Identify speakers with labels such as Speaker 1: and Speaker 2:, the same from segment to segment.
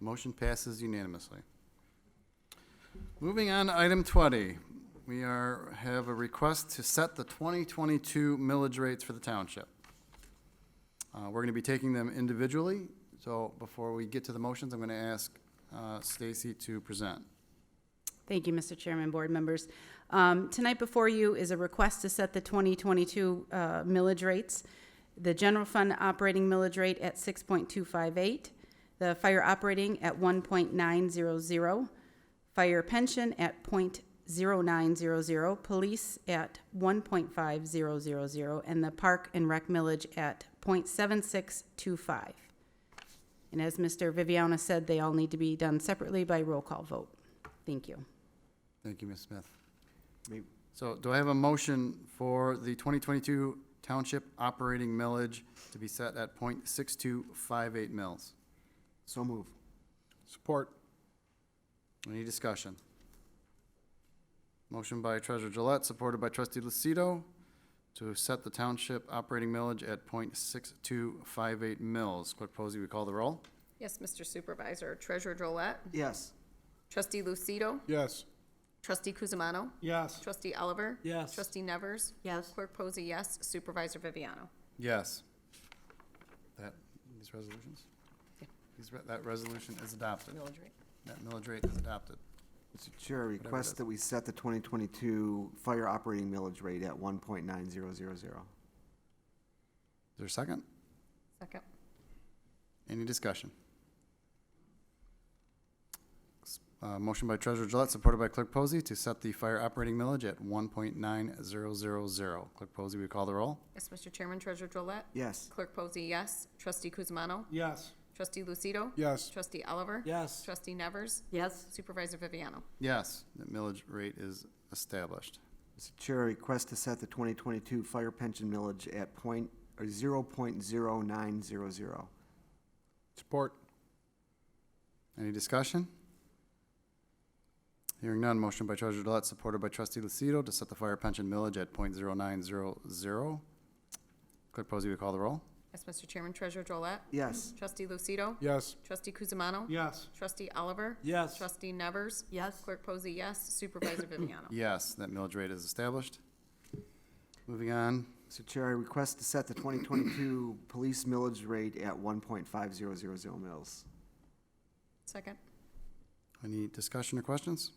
Speaker 1: Motion passes unanimously. Moving on to item 20, we are, have a request to set the 2022 millage rates for the township. Uh, We're going to be taking them individually, so before we get to the motions, I'm going to ask uh, Stacy to present.
Speaker 2: Thank you, Mr. Chairman, board members. Um, Tonight before you is a request to set the 2022 uh, millage rates. The general fund operating millage rate at 6.258, the fire operating at 1.900, fire pension at .0900, police at 1.5000, and the park and rec millage at .7625. And as Mr. Viviano said, they all need to be done separately by roll call vote. Thank you.
Speaker 1: Thank you, Ms. Smith.
Speaker 3: May-
Speaker 1: So do I have a motion for the 2022 township operating millage to be set at .6258 mills?
Speaker 3: So move.
Speaker 4: Support.
Speaker 1: Any discussion? Motion by Treasurer Gillette, supported by Trustee Lucido, to set the township operating millage at .6258 mills. Clerk Posey, we call the roll?
Speaker 5: Yes, Mr. Supervisor. Treasurer Drollet.
Speaker 3: Yes.
Speaker 5: Trustee Lucido.
Speaker 4: Yes.
Speaker 5: Trustee Kuzma.
Speaker 4: Yes.
Speaker 5: Trustee Oliver.
Speaker 4: Yes.
Speaker 5: Trustee Nevers.
Speaker 6: Yes.
Speaker 5: Clerk Posey, yes. Supervisor Viviano.
Speaker 1: Yes. That, these resolutions? These, re- that resolution is adopted.
Speaker 5: Millage rate.
Speaker 1: That millage rate is adopted.
Speaker 3: Mr. Chair, I
Speaker 1: it is.
Speaker 3: request that we set the 2022 fire operating millage rate at 1.9000.
Speaker 1: Is there a second?
Speaker 5: Second.
Speaker 1: Any discussion? Uh, motion by Treasurer Gillette, supported by Clerk Posey, to set the fire operating millage at one point nine zero zero zero. Clerk Posey, we call the roll?
Speaker 5: Yes, Mr. Chairman. Treasurer Drollet.
Speaker 3: Yes.
Speaker 5: Clerk Posey, yes. Trustee Kuzma.
Speaker 4: Yes.
Speaker 5: Trustee Lucido.
Speaker 4: Yes.
Speaker 5: Trustee Oliver.
Speaker 4: Yes.
Speaker 5: Trustee Nevers.
Speaker 6: Yes,
Speaker 5: Supervisor Viviano.
Speaker 1: Yes, the millage rate is established.
Speaker 3: Mr. Chair, I request to set the 2022 fire pension millage at point, or 0.0900.
Speaker 4: Support.
Speaker 1: Any discussion? Hearing none, motion by Treasurer Gillette, supported by Trustee Lucido, to set the fire pension millage at point zero nine zero zero. Clerk Posey, we call the roll?
Speaker 5: Yes, Mr. Chairman. Treasurer Drollet.
Speaker 3: Yes.
Speaker 5: Trustee Lucido.
Speaker 4: Yes.
Speaker 5: Trustee Kuzma.
Speaker 4: Yes.
Speaker 5: Trustee Oliver.
Speaker 4: Yes.
Speaker 5: Trustee Nevers.
Speaker 6: yes,
Speaker 5: Clerk Posey, yes. Supervisor Viviano.
Speaker 1: Yes, that millage rate is established. Moving on,
Speaker 3: Mr. Chair, I request to set the 2022 police millage rate at 1.5000 mills.
Speaker 5: Second.
Speaker 1: Any discussion or questions?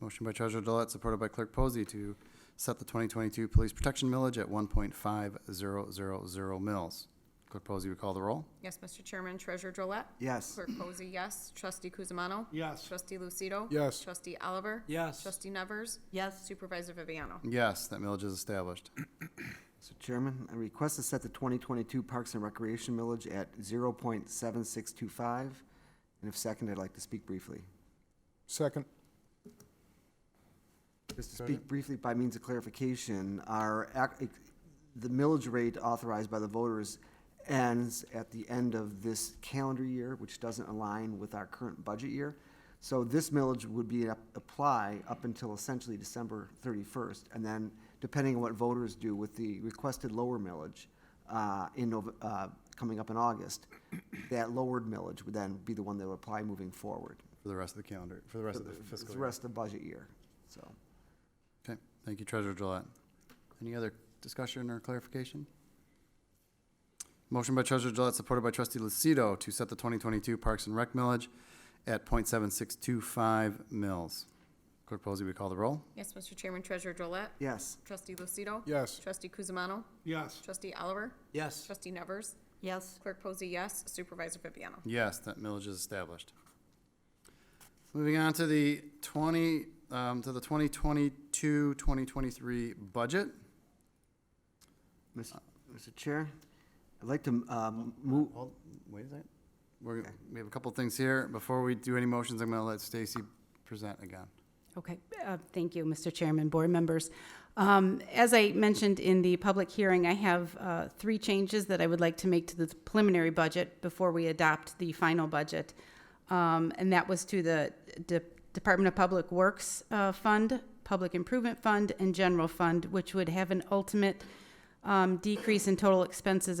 Speaker 1: Motion by Treasurer Gillette, supported by Clerk Posey, to set the 2022 police protection millage at 1.5000 mils. Clerk Posey, we call the roll?
Speaker 5: Yes, Mr. Chairman. Treasurer Drollet.
Speaker 3: Yes.
Speaker 5: Clerk Posey, yes. Trustee Kuzma.
Speaker 4: Yes.
Speaker 5: Trustee Lucido?
Speaker 4: Yes.
Speaker 5: Trustee Oliver?
Speaker 4: Yes.
Speaker 5: Trustee Nevers?
Speaker 6: yes,
Speaker 5: Supervisor Viviano?
Speaker 1: Yes, that millage is established.
Speaker 3: Mr. Chairman, I request to set the 2022 Parks and Recreation millage at 0.7625. And if second, I'd like to speak briefly.
Speaker 4: Second.
Speaker 3: Just to speak briefly by means of clarification, our, ac- e-, the millage rate authorized by the voters ends at the end of this calendar year, which doesn't align with our current budget year. So this millage would be, up- apply up until essentially December thirty-first, and then depending on what voters do with the requested lower millage, uh, in Nov, uh, coming up in August, that lowered millage would then be the one that would apply moving forward.
Speaker 1: For the rest of the calendar, for the rest of the fiscal
Speaker 3: The
Speaker 1: year.
Speaker 3: rest of the budget year, so.
Speaker 1: Okay, thank you, Treasurer Gillette. Any other discussion or clarification? Motion by Treasurer Gillette, supported by Trustee Lucido, to set the 2022 Parks and Rec millage at 0.7625 mils. Clerk Posey, we call the roll?
Speaker 5: Yes, Mr. Chairman, Treasurer Drollet?
Speaker 3: Yes.
Speaker 5: Trustee Lucido?
Speaker 4: Yes.
Speaker 5: Trustee Kuzma?
Speaker 4: Yes.
Speaker 5: Trustee Oliver?
Speaker 4: Yes.
Speaker 5: Trustee Nevers?
Speaker 6: yes,
Speaker 5: Clerk Posey, yes. Supervisor Viviano?
Speaker 1: Yes, that millage is established. Moving on to the twenty, um, to the 2022-2023 budget.
Speaker 3: Mr. Mr. Chair, I'd like to um, move,
Speaker 1: Hold, wait a second. We're, we have a couple things here. Before we do any motions, I'm gonna let Stacy present again.
Speaker 2: Okay, uh, thank you, Mr. Chairman, board members. Um, As I mentioned in the public hearing, I have uh, three changes that I would like to make to the preliminary budget before we adopt the final budget. Um, And that was to the De- Department of Public Works uh, Fund, Public Improvement Fund, and General Fund, which would have an ultimate um, decrease in total expenses of